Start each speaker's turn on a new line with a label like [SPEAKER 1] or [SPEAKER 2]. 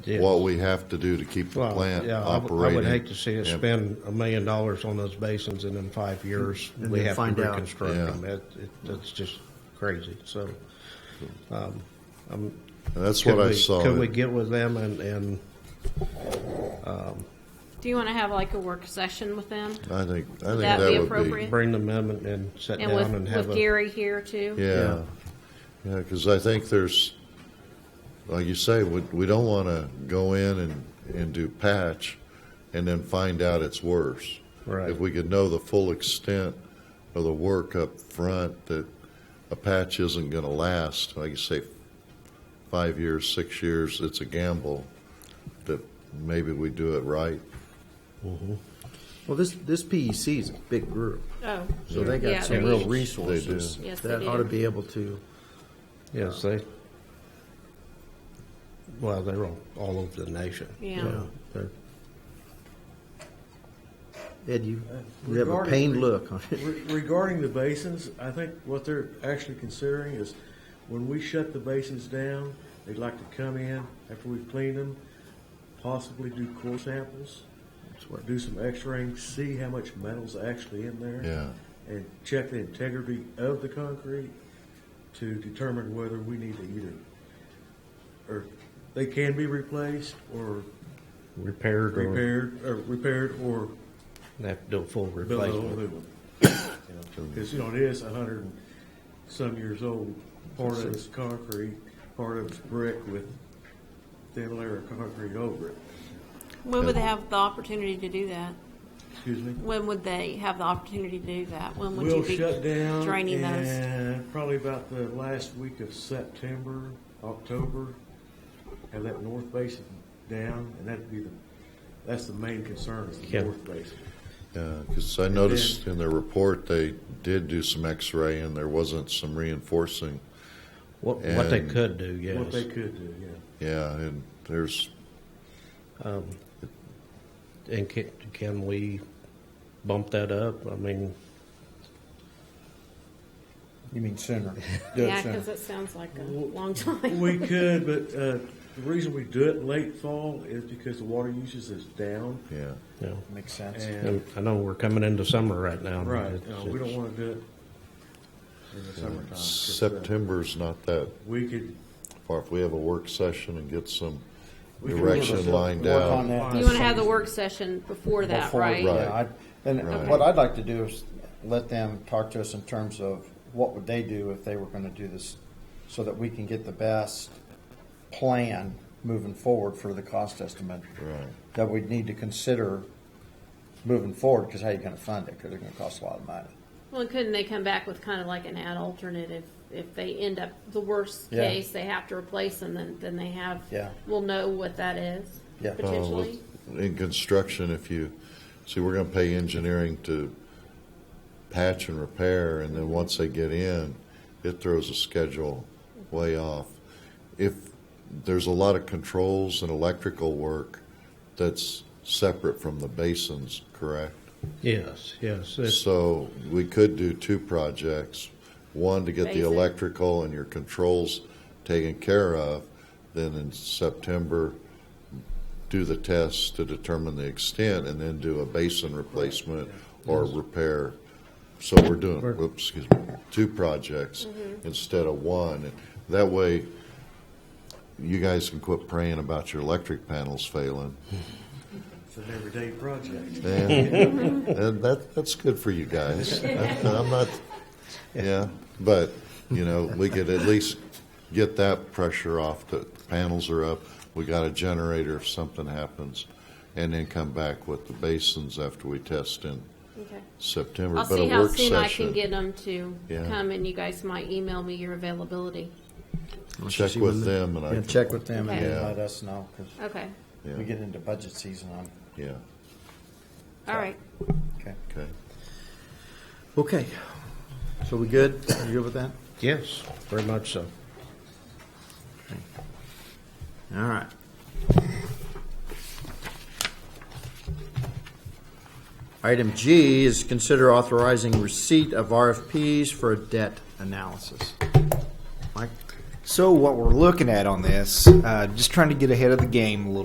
[SPEAKER 1] Yeah.
[SPEAKER 2] what we have to do to keep the
[SPEAKER 1] Well,
[SPEAKER 2] plant
[SPEAKER 1] yeah, I would-
[SPEAKER 2] operating.
[SPEAKER 1] I would hate to see us
[SPEAKER 2] and-
[SPEAKER 1] spend a million dollars on those basins and in five years,
[SPEAKER 3] And
[SPEAKER 1] we
[SPEAKER 3] then
[SPEAKER 1] have to
[SPEAKER 3] find out.
[SPEAKER 1] reconstruct
[SPEAKER 2] Yeah.
[SPEAKER 1] them. It, it, that's just crazy, so. um, I'm-
[SPEAKER 2] and That's
[SPEAKER 1] could
[SPEAKER 2] what I
[SPEAKER 1] we-
[SPEAKER 2] saw.
[SPEAKER 1] Could we get with them and, and,
[SPEAKER 4] Do you want to have like a work session with them?
[SPEAKER 2] I think, I think
[SPEAKER 4] that
[SPEAKER 2] that
[SPEAKER 4] be
[SPEAKER 2] would be.
[SPEAKER 4] appropriate?
[SPEAKER 1] bring them in and, and sit
[SPEAKER 4] And
[SPEAKER 1] down and
[SPEAKER 4] with,
[SPEAKER 1] have
[SPEAKER 4] with
[SPEAKER 1] a,
[SPEAKER 4] Gary here too?
[SPEAKER 2] Yeah, yeah, because I think there's, like you say, we, we don't want to go in and, and do patch and then find out it's worse.
[SPEAKER 1] Right.
[SPEAKER 2] If we could know the full extent of the work up front, that a patch isn't going to last, like you say, five years, six years, it's a gamble, that maybe we do it right.
[SPEAKER 3] Well, this, this PEC is a big group,
[SPEAKER 4] Oh.
[SPEAKER 3] so they
[SPEAKER 4] yeah,
[SPEAKER 3] got some
[SPEAKER 4] they're
[SPEAKER 3] real
[SPEAKER 4] huge.
[SPEAKER 3] resources.
[SPEAKER 4] Yes, they
[SPEAKER 3] That
[SPEAKER 4] do.
[SPEAKER 3] ought to be able to,
[SPEAKER 1] yes, they, well, they're all, all over the nation.
[SPEAKER 4] Yeah.
[SPEAKER 3] yeah. they're- Ed, you, you have a
[SPEAKER 5] Regarding-
[SPEAKER 3] pained look on it.
[SPEAKER 5] Re- Regarding the basins, I think what they're actually considering is when we shut the basins down, they'd like to come in after we've cleaned them, possibly do core samples,
[SPEAKER 3] That's what-
[SPEAKER 5] do some x-raying, see how much metal's actually in there.
[SPEAKER 2] Yeah.
[SPEAKER 5] And check the integrity of the concrete to determine whether we need to either, or they can be replaced or
[SPEAKER 1] Repaired or,
[SPEAKER 5] repaired, or repaired or
[SPEAKER 1] they have to do a full
[SPEAKER 5] build a whole
[SPEAKER 1] replacement.
[SPEAKER 5] new one. Because, you know, it is a hundred and some years old. Part of it's concrete, part of it's brick with thin layer of concrete over it.
[SPEAKER 4] When would they have the opportunity to do that?
[SPEAKER 5] Excuse me?
[SPEAKER 4] When would they have the opportunity to do that? When would
[SPEAKER 5] We'll
[SPEAKER 4] you be
[SPEAKER 5] shut down
[SPEAKER 4] draining those?
[SPEAKER 5] in probably about the last week of September, October. Have that north basin down, and that'd be the, that's the main concern is the
[SPEAKER 1] Yeah.
[SPEAKER 5] north basin.
[SPEAKER 2] Because Uh, I noticed in their report, they did do some x-ray and there wasn't some reinforcing.
[SPEAKER 1] What, what they
[SPEAKER 2] And-
[SPEAKER 1] could do, yes.
[SPEAKER 5] What they could do, yeah.
[SPEAKER 2] Yeah, and there's,
[SPEAKER 1] And can, can we bump that up? I mean,
[SPEAKER 6] You mean sooner? Do it
[SPEAKER 4] Yeah,
[SPEAKER 6] sooner.
[SPEAKER 4] because it sounds like a long time.
[SPEAKER 5] We could, but uh, the reason we do it late fall is because the water usage is down.
[SPEAKER 2] yeah.
[SPEAKER 1] you know,
[SPEAKER 6] Makes sense.
[SPEAKER 5] And,
[SPEAKER 1] I know we're coming into summer right now. but
[SPEAKER 5] right,
[SPEAKER 1] it's-
[SPEAKER 5] uh, we don't want to do it in the summertime. 'cause, uh,
[SPEAKER 2] September's not that
[SPEAKER 5] We could,
[SPEAKER 2] far. If we have a work session and get some
[SPEAKER 5] We can
[SPEAKER 2] direction
[SPEAKER 5] give us a
[SPEAKER 2] lined
[SPEAKER 6] Work on
[SPEAKER 2] out.
[SPEAKER 6] that
[SPEAKER 4] You want to have the work session before that,
[SPEAKER 6] before-
[SPEAKER 4] right?
[SPEAKER 2] Right.
[SPEAKER 6] Yeah, I- And
[SPEAKER 2] Right.
[SPEAKER 6] what I'd like to do is let them talk to us in terms of what would they do if they were going to do this, so that we can get the best plan moving forward for the cost estimate.
[SPEAKER 2] Right.
[SPEAKER 6] That we'd need to consider moving forward, because how you going to fund it? Because it's going to cost a lot of money.
[SPEAKER 4] Well, couldn't they come back with kind of like an ad alternative? If they end up, the worst
[SPEAKER 6] Yeah.
[SPEAKER 4] case, they have to replace them, then, then they have,
[SPEAKER 6] Yeah.
[SPEAKER 4] we'll know what that is,
[SPEAKER 6] Yeah.
[SPEAKER 2] Uh, well,
[SPEAKER 4] potentially.
[SPEAKER 2] In construction, if you, see, we're gonna pay engineering to patch and repair, and then once they get in, it throws a schedule way off. If, there's a lot of controls and electrical work that's separate from the basins, correct?
[SPEAKER 1] Yes, yes. It's,
[SPEAKER 2] So we could do two projects, one to get the
[SPEAKER 4] Basic.
[SPEAKER 2] electrical and your controls taken care of, then in September, do the tests to determine the extent, and then do a basin replacement or repair. So we're doing, whoops, excuse me, two projects instead of one. And That way, you guys can quit praying about your electric panels failing.
[SPEAKER 5] it's an everyday project.
[SPEAKER 2] And, and that, that's good for you guys. I'm not, yeah, but, you know, we could at least get that pressure off. The panels are up. We got a generator if something happens. And then come back with the basins after we test in
[SPEAKER 4] Okay.
[SPEAKER 2] September.
[SPEAKER 4] I'll
[SPEAKER 2] But a
[SPEAKER 4] see how
[SPEAKER 2] work
[SPEAKER 4] soon I can
[SPEAKER 2] session,
[SPEAKER 4] get them to
[SPEAKER 2] Yeah.
[SPEAKER 4] come, and you guys might email me your availability.
[SPEAKER 2] Check with them and I
[SPEAKER 3] Yeah,
[SPEAKER 2] can.
[SPEAKER 3] check with
[SPEAKER 6] Them and
[SPEAKER 2] Yeah.
[SPEAKER 6] let us know, because
[SPEAKER 4] Okay,
[SPEAKER 6] we
[SPEAKER 2] Yeah,
[SPEAKER 6] get into budget season on,
[SPEAKER 2] yeah,
[SPEAKER 4] all right.
[SPEAKER 6] okay.
[SPEAKER 2] okay.
[SPEAKER 3] Okay, so we good? You good with that?
[SPEAKER 1] yes, very much so.
[SPEAKER 3] All right. Item G is consider authorizing receipt of RFPs for a debt analysis. Mike?
[SPEAKER 6] So what we're looking at on this, uh, just trying to get ahead of the game a little